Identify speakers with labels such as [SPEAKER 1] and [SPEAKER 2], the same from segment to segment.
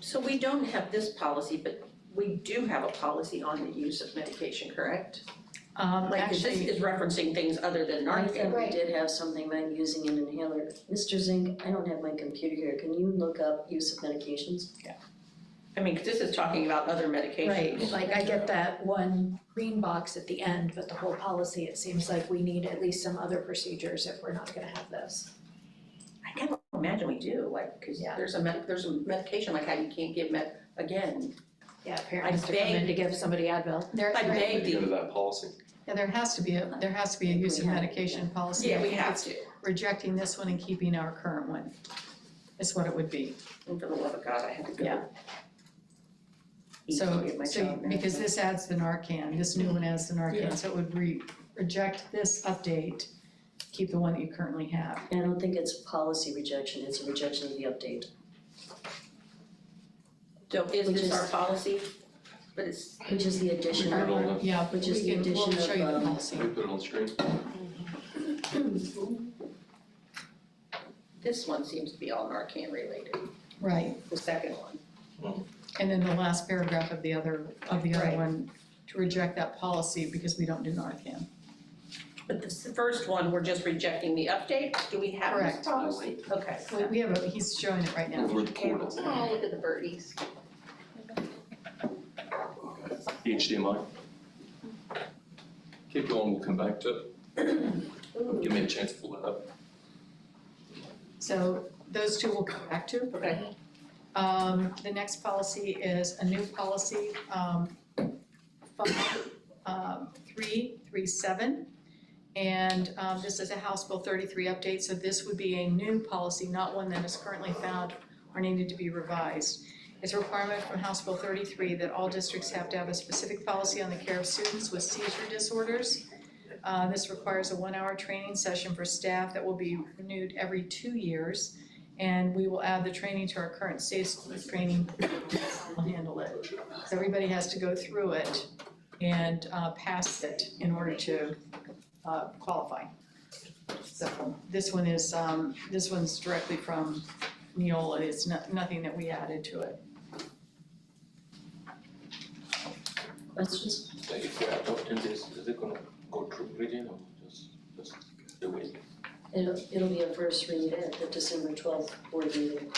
[SPEAKER 1] So we don't have this policy, but we do have a policy on the use of medication, correct?
[SPEAKER 2] Um,
[SPEAKER 1] Like, this
[SPEAKER 2] actually,
[SPEAKER 1] is referencing things other than
[SPEAKER 3] I
[SPEAKER 1] Narcan.
[SPEAKER 3] thought we
[SPEAKER 4] Right.
[SPEAKER 3] did have something about using an inhaler. Mr. Zink, I don't have my computer here, can you look up use of medications?
[SPEAKER 1] I mean, 'cause this is talking about other
[SPEAKER 2] right,
[SPEAKER 1] medications.
[SPEAKER 2] like I get that one green box at the end, but the whole policy, it seems like we need at least some other procedures if we're not gonna have this.
[SPEAKER 1] I can't imagine we do, like, cause
[SPEAKER 2] Yeah.
[SPEAKER 1] there's a med, there's a medication, like how you can't give med, again.
[SPEAKER 2] Yeah, parents to come
[SPEAKER 1] beg-
[SPEAKER 2] in to give somebody Advil.
[SPEAKER 5] There,
[SPEAKER 1] I
[SPEAKER 5] there-
[SPEAKER 1] beg
[SPEAKER 6] Need to go to
[SPEAKER 1] the,
[SPEAKER 6] that policy.
[SPEAKER 5] yeah, there has to be, a there has to be a use of
[SPEAKER 3] We have it,
[SPEAKER 5] medication policy.
[SPEAKER 1] yeah, we have to,
[SPEAKER 5] Rejecting this one and keeping our current one is what it would be.
[SPEAKER 1] and for the love of God, I had to
[SPEAKER 5] Yeah.
[SPEAKER 1] go. eat and
[SPEAKER 5] So,
[SPEAKER 1] get my
[SPEAKER 5] so,
[SPEAKER 1] child medicine.
[SPEAKER 5] because this adds the Narcan, this new one adds the
[SPEAKER 1] Yeah.
[SPEAKER 5] Narcan, so it would re, reject this update, keep the one that you currently have.
[SPEAKER 3] I don't think it's a policy rejection, it's a rejection of the update.
[SPEAKER 1] So is
[SPEAKER 3] Which
[SPEAKER 1] this
[SPEAKER 3] is-
[SPEAKER 1] our policy? But it's,
[SPEAKER 3] Which is the
[SPEAKER 6] We
[SPEAKER 3] addition
[SPEAKER 6] put it
[SPEAKER 3] of,
[SPEAKER 6] on
[SPEAKER 5] Yeah,
[SPEAKER 3] Which is
[SPEAKER 5] we
[SPEAKER 3] the
[SPEAKER 5] can- we'll
[SPEAKER 3] addition of,
[SPEAKER 5] show you the
[SPEAKER 3] um,
[SPEAKER 5] policy.
[SPEAKER 6] the, we put it on the screen.
[SPEAKER 1] this one seems to be all Narcan related,
[SPEAKER 5] Right,
[SPEAKER 1] the second one.
[SPEAKER 5] and then the last paragraph of the other, of the other
[SPEAKER 1] Right.
[SPEAKER 5] one, to reject that policy because we don't do Narcan.
[SPEAKER 1] But this, the first one, we're just rejecting the update, do we have
[SPEAKER 5] Correct.
[SPEAKER 1] this policy? Okay.
[SPEAKER 5] We, we have, a he's showing it right now.
[SPEAKER 6] Over the portal.
[SPEAKER 1] Oh, look at the birdies.
[SPEAKER 6] HDMI. Keep going, we'll come back to it. Give me a chance to pull that up.
[SPEAKER 5] So those two we'll come back to.
[SPEAKER 1] Okay.
[SPEAKER 5] Um, the next policy is a new policy, um, five, um, three, three, seven. And, um, this is a House Bill thirty-three update, so this would be a new policy, not one that is currently found or needed to be revised. It's a requirement from House Bill thirty-three that all districts have to have a specific policy on the care of students with seizure disorders. Uh, this requires a one-hour training session for staff that will be renewed every two years. And we will add the training to our current safe school training, we'll handle it. So everybody has to go through it and uh, pass it in order to uh, qualify. So this one is, um, this one's directly from Neola, it's not, nothing that we added to it.
[SPEAKER 3] questions?
[SPEAKER 6] If we adopt this, is it gonna go through reading or just, just the way?
[SPEAKER 3] It'll, it'll be a first read at the December twelfth board meeting.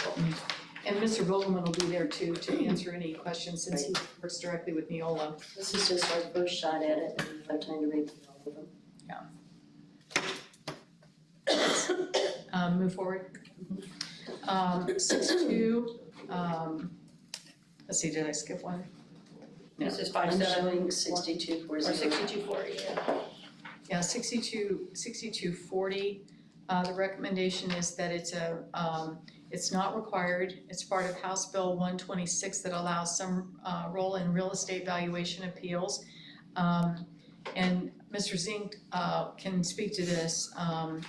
[SPEAKER 5] And Mr. Vogelman will be there too to answer any questions since he works directly with Neola.
[SPEAKER 3] This is just our first shot at it, and we have time to read through all of them.
[SPEAKER 5] um, move forward. Um, six two, um, let's see, did I skip one? Yeah.
[SPEAKER 1] This is five
[SPEAKER 3] I'm
[SPEAKER 1] seven
[SPEAKER 3] showing sixty-two four
[SPEAKER 1] or
[SPEAKER 3] zero.
[SPEAKER 1] sixty-two forty, yeah.
[SPEAKER 5] Yeah, sixty-two, sixty-two forty, uh, the recommendation is that it's a, um, it's not required. It's part of House Bill one twenty-six that allows some, uh, role in real estate valuation appeals. Um, and Mr. Zink, uh, can speak to this, um,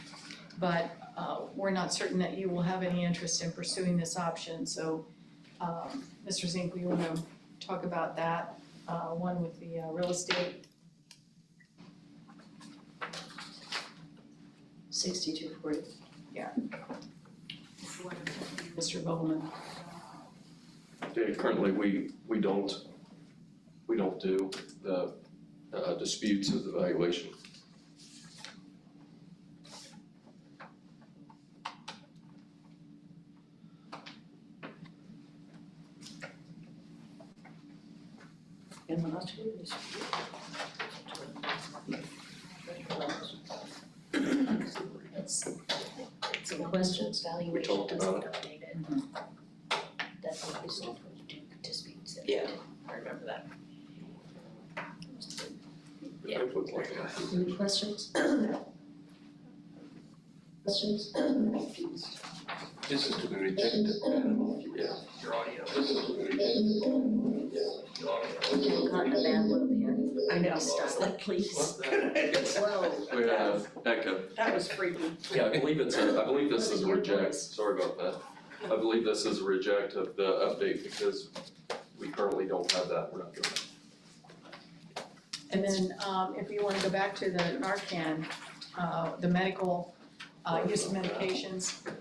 [SPEAKER 5] but, uh, we're not certain that you will have any interest in pursuing this option, so, um, Mr. Zink, we wanna talk about that, uh, one with the, uh, real estate
[SPEAKER 3] Sixty-two forty.
[SPEAKER 5] Mr. Bowman.
[SPEAKER 6] Yeah, currently, we, we don't, we don't do the uh, disputes of the valuation.
[SPEAKER 1] And the last two is-
[SPEAKER 3] Some questions?
[SPEAKER 6] We talked about it.
[SPEAKER 3] Mm-hmm.
[SPEAKER 1] Yeah, I remember that. Yeah.
[SPEAKER 6] It looked like that.
[SPEAKER 3] Any questions? Questions?
[SPEAKER 7] This is to be rejected.
[SPEAKER 6] Yeah.
[SPEAKER 7] Your audio. This is to be rejected. Your audio.
[SPEAKER 3] We have gotten a bad look here.
[SPEAKER 1] I know,
[SPEAKER 3] Stop it, please.
[SPEAKER 1] Whoa,
[SPEAKER 6] We have echo.
[SPEAKER 1] that was freaky.
[SPEAKER 6] Yeah, I believe it's a, I believe this is a reject, sorry about that. I believe this is a reject of the update because we currently don't have that, we're not doing it.
[SPEAKER 5] And then, um, if you wanna go back to the Narcan, uh, the medical, uh, use of medications,